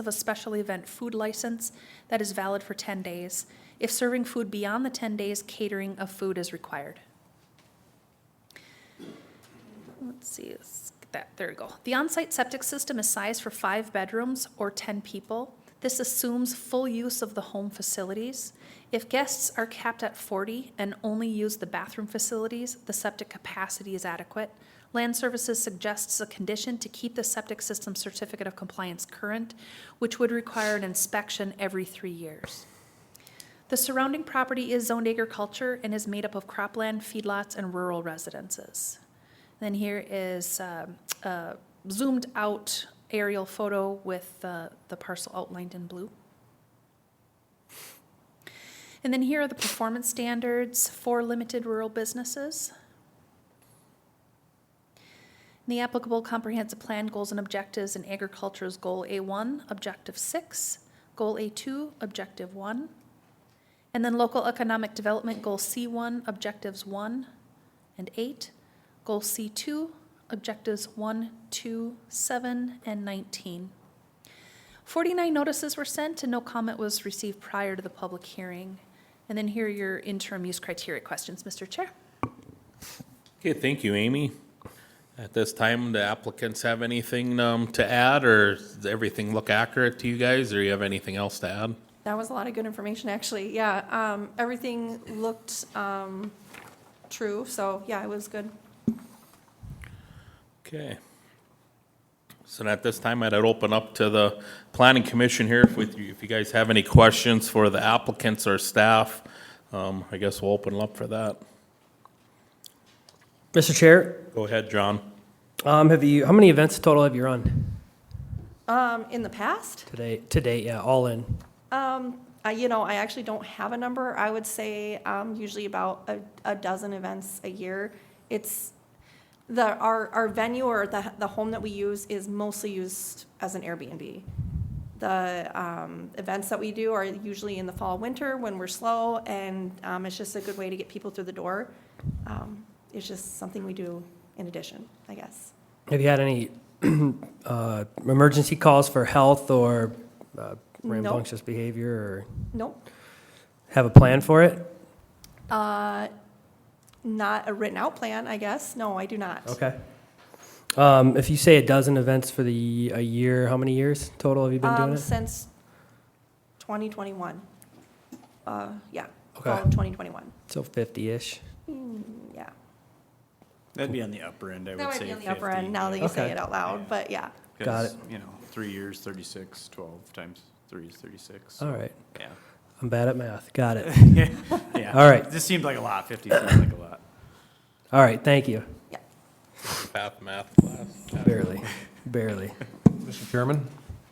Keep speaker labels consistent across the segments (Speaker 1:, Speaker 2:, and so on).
Speaker 1: of a special event food license that is valid for 10 days. If serving food beyond the 10 days, catering of food is required. Let's see, let's get that, there we go. The on-site septic system is sized for five bedrooms or 10 people. This assumes full use of the home facilities. If guests are capped at 40 and only use the bathroom facilities, the septic capacity is adequate. Land Services suggests a condition to keep the septic system certificate of compliance current, which would require an inspection every three years. The surrounding property is zoned agriculture and is made up of cropland, feedlots, and rural residences. Then here is um, a zoomed-out aerial photo with uh, the parcel outlined in blue. And then here are the performance standards for limited rural businesses. And The applicable comprehensive plan goals and objectives in agriculture is Goal A1, Objective 6, Goal A2, Objective 1. And then local economic development, Goal C1, Objectives 1 and 8, Goal C2, Objectives 1, 2, 7, and 19. 49 notices were sent and no comment was received prior to the public hearing. And then here are your interim use criteria questions, Mr. Chair.
Speaker 2: Okay, thank you, Amy. At this time, the applicants have anything um, to add, or does everything look accurate to you guys, or you have anything else to add?
Speaker 3: That was a lot of good information, actually. Yeah, um, everything looked, um, true, so yeah, it was good.
Speaker 2: Okay. So at this time, I'd open up to the planning commission here if with you, if you guys have any questions for the applicants or staff. um, I guess we'll open up for that.
Speaker 4: Mr. Chair,
Speaker 2: Go ahead, John.
Speaker 4: um, have you, how many events total have you run
Speaker 3: Um, in the past,
Speaker 4: today, to date? Yeah, all in.
Speaker 3: um, I, you know, I actually don't have a number. I would say, um, usually about a, a dozen events a year. It's, the, our, our venue or the, the home that we use is mostly used as an Airbnb. The, um, events that we do are usually in the fall, winter, when we're slow, and, um, it's just a good way to get people through the door. Um, It's just something we do in addition, I guess.
Speaker 4: Have you had any uh, emergency calls for health or uh,
Speaker 3: No.
Speaker 4: rambunctious behavior or
Speaker 3: Nope,
Speaker 4: have a plan for it?
Speaker 3: uh, not a written out plan, I guess. No, I do not.
Speaker 4: Okay. Um, if you say a dozen events for the a year, how many years total have you been doing
Speaker 3: Um,
Speaker 4: it?
Speaker 3: since 2021. Uh, yeah.
Speaker 4: Okay.
Speaker 3: fall of 2021.
Speaker 4: So 50 ish.
Speaker 3: Mm, Yeah.
Speaker 5: That'd be on the upper end, I
Speaker 3: That
Speaker 5: would
Speaker 3: might
Speaker 5: say
Speaker 3: be on the upper end now that you
Speaker 4: yeah.
Speaker 3: say
Speaker 4: Okay.
Speaker 3: it out loud, but yeah.
Speaker 4: Got
Speaker 5: 'Cause, You know, three years, thirty-six, twelve times three is thirty-six. so,
Speaker 4: All right.
Speaker 5: Yeah.
Speaker 4: I'm bad at math. Got it.
Speaker 5: Yeah.
Speaker 4: All right.
Speaker 5: This seemed like a lot, fifty seems like a lot.
Speaker 4: All right. Thank you.
Speaker 2: Math, math class.
Speaker 4: Barely. Barely.
Speaker 6: Mr. Chairman,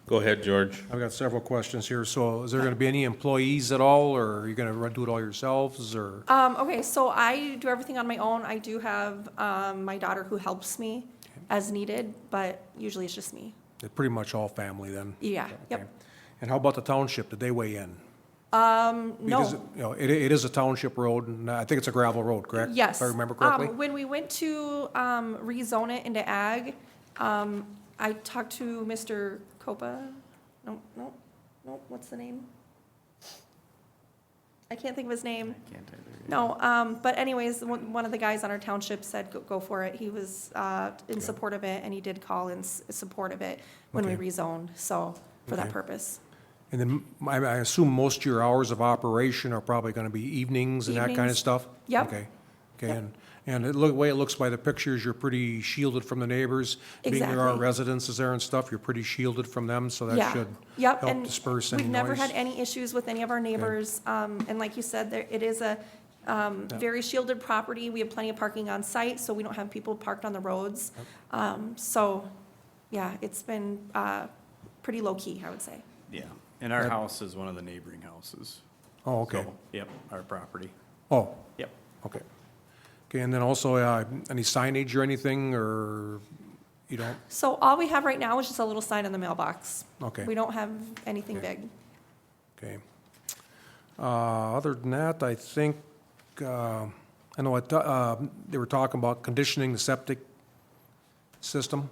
Speaker 2: Go ahead, George.
Speaker 6: I've got several questions here. So is there going to be any employees at all, or are you going to do it all yourselves, or?
Speaker 3: Um, okay, so I do everything on my own. I do have, um, my daughter who helps me as needed, but usually it's just me.
Speaker 6: They're Pretty much all family then?
Speaker 3: Yeah,
Speaker 6: Okay.
Speaker 3: yep.
Speaker 6: And how about the township? Did they weigh in? Because,
Speaker 3: No.
Speaker 6: you know, it, it is a township road, and I think it's a gravel road, correct?
Speaker 3: Yes.
Speaker 6: If I remember
Speaker 3: Um,
Speaker 6: correctly?
Speaker 3: When we went to um, rezone it into ag, um, I talked to Mr. Copa, no, no, no, what's the name? I can't think of his name.
Speaker 5: Can't either.
Speaker 3: No, um, but anyways, one one of the guys on our township said, go, go for it. He was, uh, in support of it and he did call in s- support of it when we
Speaker 6: Okay.
Speaker 3: rezoned, so, for that
Speaker 6: Okay.
Speaker 3: purpose.
Speaker 6: And then I, I assume most of your hours of operation are probably going to be evenings and that kind of
Speaker 3: Evenings.
Speaker 6: stuff?
Speaker 3: Yep.
Speaker 6: Okay. Okay, and, and it look, the way it looks by the pictures, you're pretty shielded from the neighbors. Being there are
Speaker 3: Exactly.
Speaker 6: residences there and stuff, you're pretty shielded from them, so that
Speaker 3: Yeah.
Speaker 6: should
Speaker 3: Yep,
Speaker 6: help
Speaker 3: and
Speaker 6: disperse any noise.
Speaker 3: We've never had any issues with any of our neighbors, um, and like you said, there, it is a, um, very shielded property, we have plenty of parking on site, so we don't have people parked on the roads. Um, so, yeah, it's been, uh, pretty low-key, I would say.
Speaker 5: Yeah, and our house is one of the neighboring houses.
Speaker 6: Oh, okay.
Speaker 5: So, Yep, our property,
Speaker 6: Oh,
Speaker 5: yep.
Speaker 6: okay. Okay, and then also, uh, any signage or anything, or you don't?
Speaker 3: So all we have right now is just a little sign on the mailbox.
Speaker 6: Okay.
Speaker 3: We don't have anything
Speaker 6: Okay.
Speaker 3: big.
Speaker 6: Okay. Uh, Other than that, I think, uh, I know, I ta- uh, they were talking about conditioning the septic system,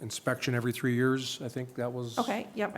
Speaker 6: inspection every three years, I think that was.
Speaker 3: Okay, yep,